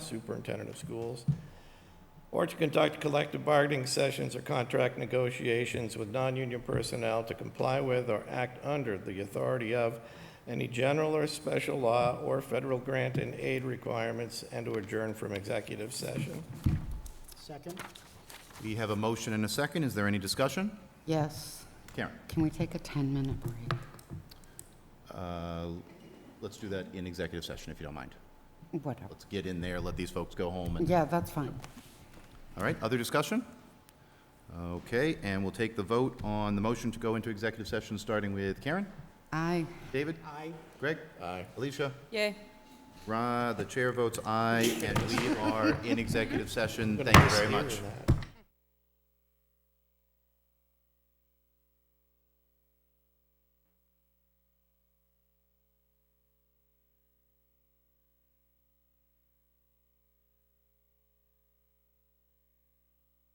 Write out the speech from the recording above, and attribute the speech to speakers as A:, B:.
A: superintendent of schools, or to conduct collective bargaining sessions or contract negotiations with non-union personnel to comply with or act under the authority of any general or special law or federal grant and aid requirements, and to adjourn from executive session.
B: Second?
C: We have a motion and a second. Is there any discussion?
D: Yes.
C: Karen?
D: Can we take a 10-minute break?
C: uh, Let's do that in executive session, if you don't mind.
D: Whatever.
C: Let's get in there, let these folks go home. and-
D: Yeah, that's fine.
C: All right, other discussion? Okay, and we'll take the vote on the motion to go into executive session, starting with Karen,
D: Aye.
C: David,
B: Aye.
C: Greg,
A: Aye.
C: Alicia,
E: Yay.
C: Ra, the chair votes aye, and we are in executive session. Thank you very
A: Hearing
C: much.
A: that.